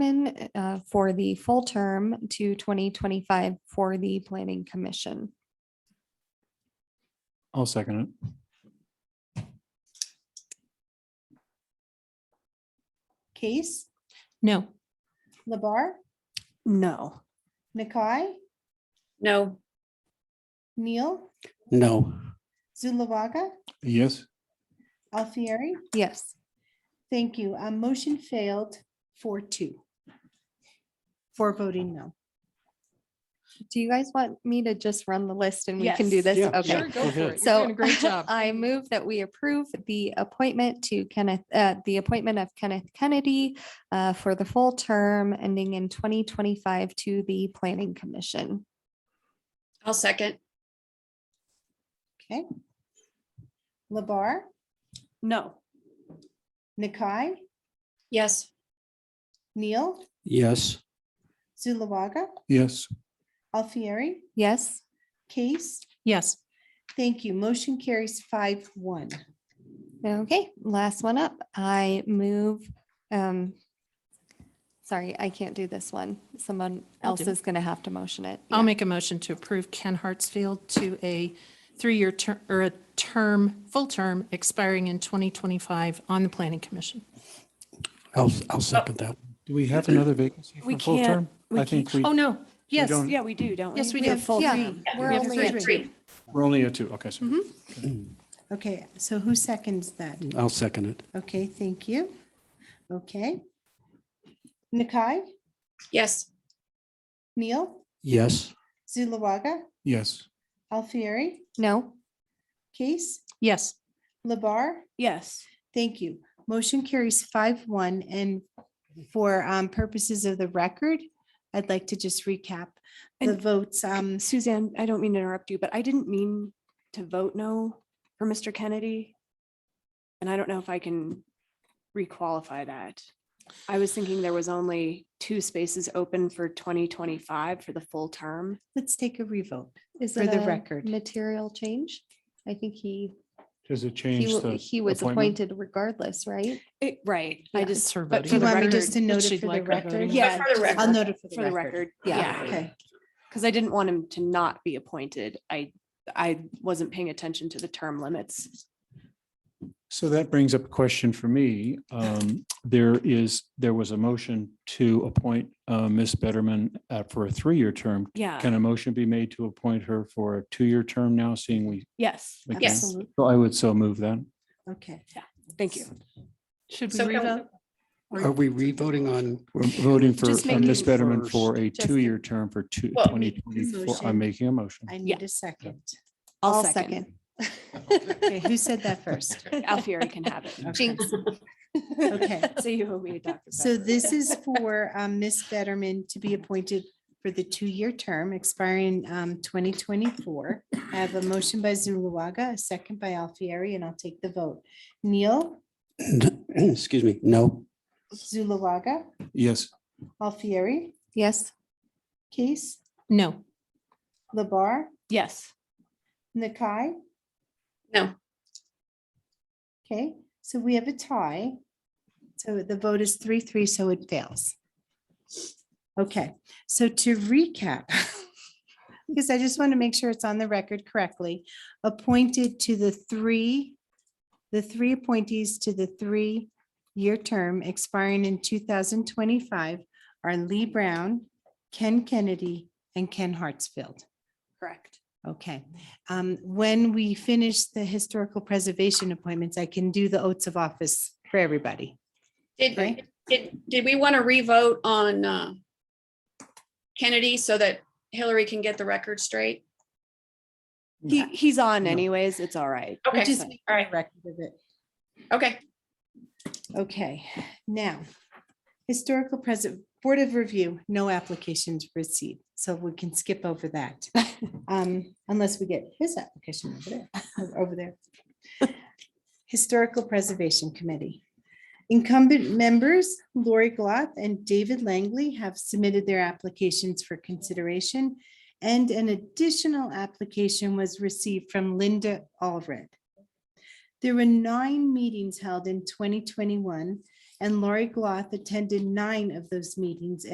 Blackman uh, for the full term to 2025 for the Planning Commission. I'll second it. Case, No. Labar, No. Nakai, No. Neil, No. Zulawaga, Yes, Alfieri. Yes. Thank you. Um, motion failed four two. For voting no. Do you guys want me to just run the list and we can do Yes. this? Yeah, Okay. sure, go for it. So great job. I move that we approve the appointment to Kenneth, uh, the appointment of Kenneth Kennedy uh, for the full term ending in 2025 to the Planning Commission. I'll second. Okay. Labar, No. Nakai, Yes. Neil, Yes. Zulawaga, yes, Alfieri, Yes, Case. Yes. Thank you. Motion carries five one. okay, last one up. I move, um, sorry, I can't do this one. Someone I'll else do it. is going to have to motion it. I'll Yeah. make a motion to approve Ken Hartsfield to a three-year term, or a term, full term expiring in 2025 on the Planning Commission. I'll, I'll second that. do we have another vacancy for We full can't- term? we I think we, Oh, no. Yes. don't- Yeah, we do, don't we? Yes, we We do. have full Yeah. term. We're We have only three. at three. we're only at two, okay, so Okay, so who seconds that? I'll second it. Okay, thank you. Okay. Nakai, Yes. Neil, Yes. Zulawaga, yes, Alfieri, No, Case, Yes. Labar. Yes. Thank you. Motion carries five one and for um, purposes of the record, I'd like to just recap the And- votes. Um, Um, Suzanne, I don't mean to interrupt you, but I didn't mean to vote no for Mr. Kennedy. And I don't know if I can requalify that. I was thinking there was only two spaces open for twenty twenty-five for the full term. Let's take a revote. is For it the a record. material change? I think he, does it he change w- the? he was appointment? appointed regardless, right? It, right, Yeah, I it's just. her voting. but Do for you the want me record- just to note it she'd for the like her record? voting? Yeah. For the just I'll note it For the record, Yeah. yeah, Okay. because I didn't want him to not be appointed. I, I wasn't paying attention to the term limits. So that brings up a question for me. Um, There is, there was a motion to appoint uh, Ms. Betterman uh, for a three-year term. Yeah, Can a motion be made to appoint her for a two-year term now, seeing we? yes, we can? Yes. Absolutely. So I would so move that. Okay. thank you. Should we So can we- revote? Are we re-voting on? We're voting for Just uh, making Ms. Betterman first. for a Just- two-year term for two, Well, twenty twenty-four. I'm motion. making a motion. I Yeah. need a second. I'll second. Okay, who said that first? Alfieri can have it. Jinx. Okay. So you owe me a Dr. So Pepper. this is for um, Ms. Betterman to be appointed for the two-year term expiring um, 2024. I have a motion by Zuluaga, a second by Alfieri, and I'll take the vote. Neil, Excuse me. No. Zuluaga, Yes, Alfieri, Yes, Case, No. Labar, Yes, Nakai. No. Okay, so we have a tie. So the vote is three, three, so it fails. Okay, so to recap, because I just want to make sure it's on the record correctly, appointed to the three, the three appointees to the three-year term expiring in two thousand twenty-five are Lee Brown, Ken Kennedy, and Ken Hartsfield. correct. Okay, um, when we finish the historical preservation appointments, I can do the oaths of office for everybody. Did, Right. did, did we want to revote on uh, Kennedy so that Hillary can get the record straight? He, he's on No. anyways. It's all right. Okay, Just make all a right, record of it. okay. Okay, now, historical present, Board of Review, no applications received, so we can skip over that. Um, unless we get his application over there, over there. Historical Preservation Committee. Incumbent members Lori Gloth and David Langley have submitted their applications for consideration. And an additional application was received from Linda Allred. There were nine meetings held in twenty twenty-one, and Lori Gloth attended nine of those meetings